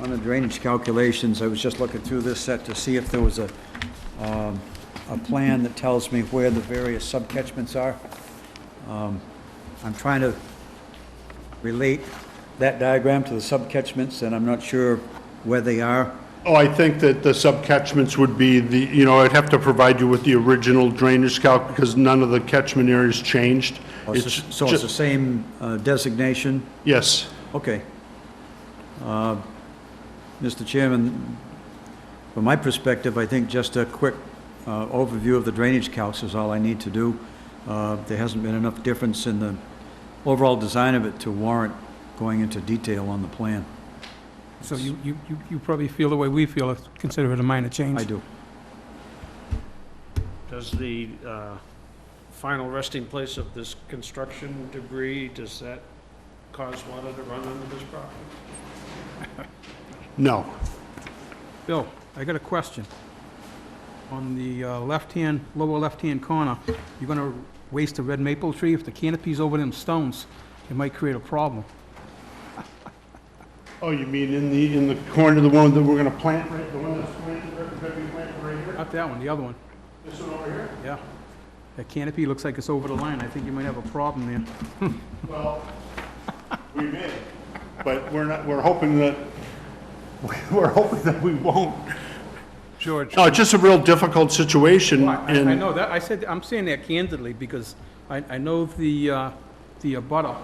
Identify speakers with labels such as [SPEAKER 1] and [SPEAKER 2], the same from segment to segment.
[SPEAKER 1] on the drainage calculations, I was just looking through this set to see if there was a, um, a plan that tells me where the various subcatchments are. Um, I'm trying to relate that diagram to the subcatchments, and I'm not sure where they are.
[SPEAKER 2] Oh, I think that the subcatchments would be the, you know, I'd have to provide you with the original drainage calc because none of the catchment areas changed.
[SPEAKER 1] Oh, it's the- So it's the
[SPEAKER 2] just-
[SPEAKER 1] same uh, designation?
[SPEAKER 2] Yes.
[SPEAKER 1] Okay. Uh, Mr. Chairman, from my perspective, I think just a quick uh, overview of the drainage calcs is all I need to do. Uh, There hasn't been enough difference in the overall design of it to warrant going into detail on the plan.
[SPEAKER 3] So you, you, you- you probably feel the way we feel, consider it a minor change.
[SPEAKER 1] I do.
[SPEAKER 4] Does the uh, final resting place of this construction debris, does that cause water to run under this property?
[SPEAKER 2] No.
[SPEAKER 3] Bill, I got a question. On the uh, left-hand, lower left-hand corner, you're gonna waste a red maple tree? If the canopy's over them stones, it might create a problem.
[SPEAKER 2] Oh, you mean in the, in the corner, the one that we're going to plant, right, the one that's planted, right, that we planted right here?
[SPEAKER 3] Not that one, the other one,
[SPEAKER 2] This one over here?
[SPEAKER 3] yeah. That canopy looks like it's over the line. I think you might have a problem there.
[SPEAKER 2] Well, we may, but we're not, we're hoping that, we're hoping that we won't.
[SPEAKER 3] George.
[SPEAKER 2] No, it's just a real difficult situation
[SPEAKER 3] I, I
[SPEAKER 2] and,
[SPEAKER 3] know that, I said, I'm saying that candidly, because I, I know the, uh, the abutter,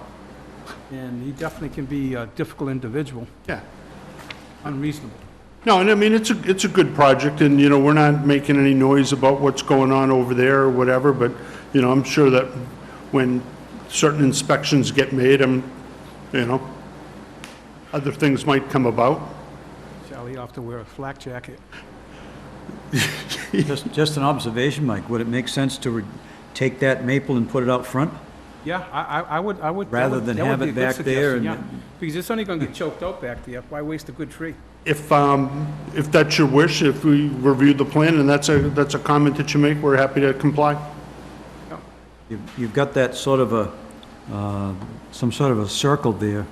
[SPEAKER 3] and he definitely can be a difficult individual,
[SPEAKER 2] yeah.
[SPEAKER 3] unreasonable.
[SPEAKER 2] No, and I mean, it's a, it's a good project, and, you know, we're not making any noise about what's going on over there or whatever, but, you know, I'm sure that when certain inspections get made, i you know, other things might come about.
[SPEAKER 3] Charlie, you'll have to wear a flak jacket.
[SPEAKER 1] Just, just an observation, Mike, would it make sense to re- take that maple and put it out front?
[SPEAKER 3] Yeah, I, I I would, I would. that
[SPEAKER 1] Rather
[SPEAKER 3] would-
[SPEAKER 1] than
[SPEAKER 3] that would
[SPEAKER 1] have
[SPEAKER 3] be
[SPEAKER 1] it
[SPEAKER 3] a good
[SPEAKER 1] back there
[SPEAKER 3] suggestion,
[SPEAKER 1] and-
[SPEAKER 3] yeah. Because it's only gonna get choked out back there, why waste a good tree?
[SPEAKER 2] If, um, if that's your wish, if we review the plan and that's a, that's a comment that you make, we're happy to comply.
[SPEAKER 1] You've, you've got that sort of a, uh, some sort of a circle there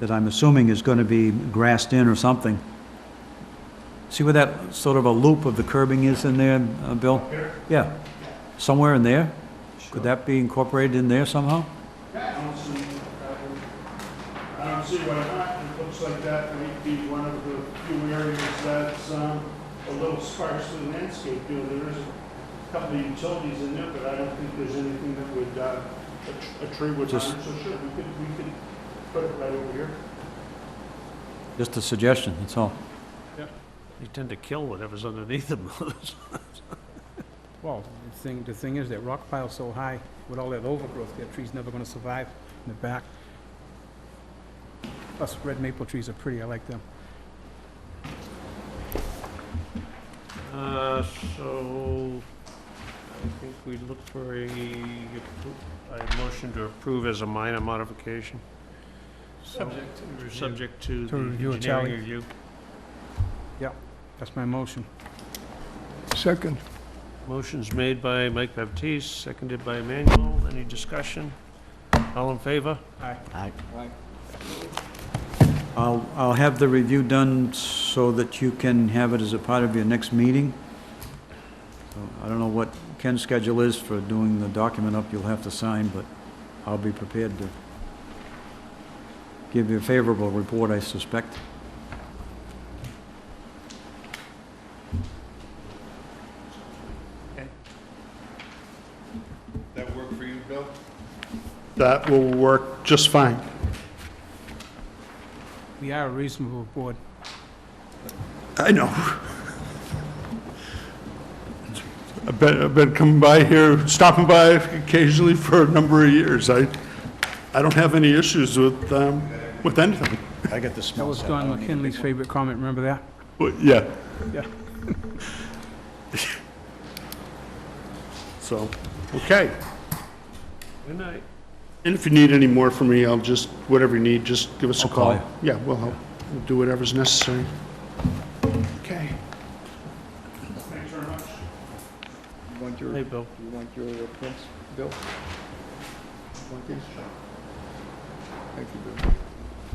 [SPEAKER 1] that I'm assuming is going to be grassed in or something. See where that sort of a loop of the curbing is in there, uh, Bill? Yeah, somewhere in there? Could that be incorporated in there somehow?
[SPEAKER 2] Um, I don't see why not, um, it looks like that might be one of the few areas that's, um, a little sparsely landscaped, you know, there is a couple of utilities in there, but I don't think there's anything that would, uh, a tr- a tree would harm,
[SPEAKER 1] Just-
[SPEAKER 2] so sure, we could, we could put it right over here.
[SPEAKER 1] Just a suggestion, that's all.
[SPEAKER 4] They tend to kill whatever's underneath them.
[SPEAKER 3] Well, the thing, the thing is, that rock pile's so high, with all that overgrowth, that tree's never gonna survive in the back. Plus, red maple trees are pretty, I like them.
[SPEAKER 4] Uh, So I think we look for a, appro- a motion to approve as a minor modification. Subject to review. Subject to the
[SPEAKER 3] To review, Charlie.
[SPEAKER 4] engineering review.
[SPEAKER 3] That's my motion.
[SPEAKER 5] Second.
[SPEAKER 4] Motion's made by Mike Baptiste, seconded by Emmanuel. Any discussion? All in favor?
[SPEAKER 3] Aye.
[SPEAKER 1] I'll, I'll have the review done so that you can have it as a part of your next meeting. So I don't know what Ken's schedule is for doing the document up you'll have to sign, but I'll be prepared to give you a favorable report, I suspect.
[SPEAKER 6] That work for you, Bill?
[SPEAKER 2] That will work just fine.
[SPEAKER 3] We are a reasonable board.
[SPEAKER 2] I know. I've been, I've been coming by here, stopping by occasionally for a number of years. I, I don't have any issues with, um, with anything.
[SPEAKER 1] I got the smell.
[SPEAKER 3] That was Don McKinley's favorite comment, remember that?
[SPEAKER 2] But, yeah.
[SPEAKER 3] Yeah.
[SPEAKER 2] So, okay.
[SPEAKER 4] Good night.
[SPEAKER 2] And if you need any more from me, I'll just, whatever you need, just give us a
[SPEAKER 1] I'll call
[SPEAKER 2] call. Yeah, we'll help. We'll do whatever's necessary. Okay. Thanks very much.
[SPEAKER 5] You want your,
[SPEAKER 4] Hey,
[SPEAKER 5] you
[SPEAKER 4] Bill.
[SPEAKER 5] want your uh, prints, Bill? You Want these? Thank you, Bill.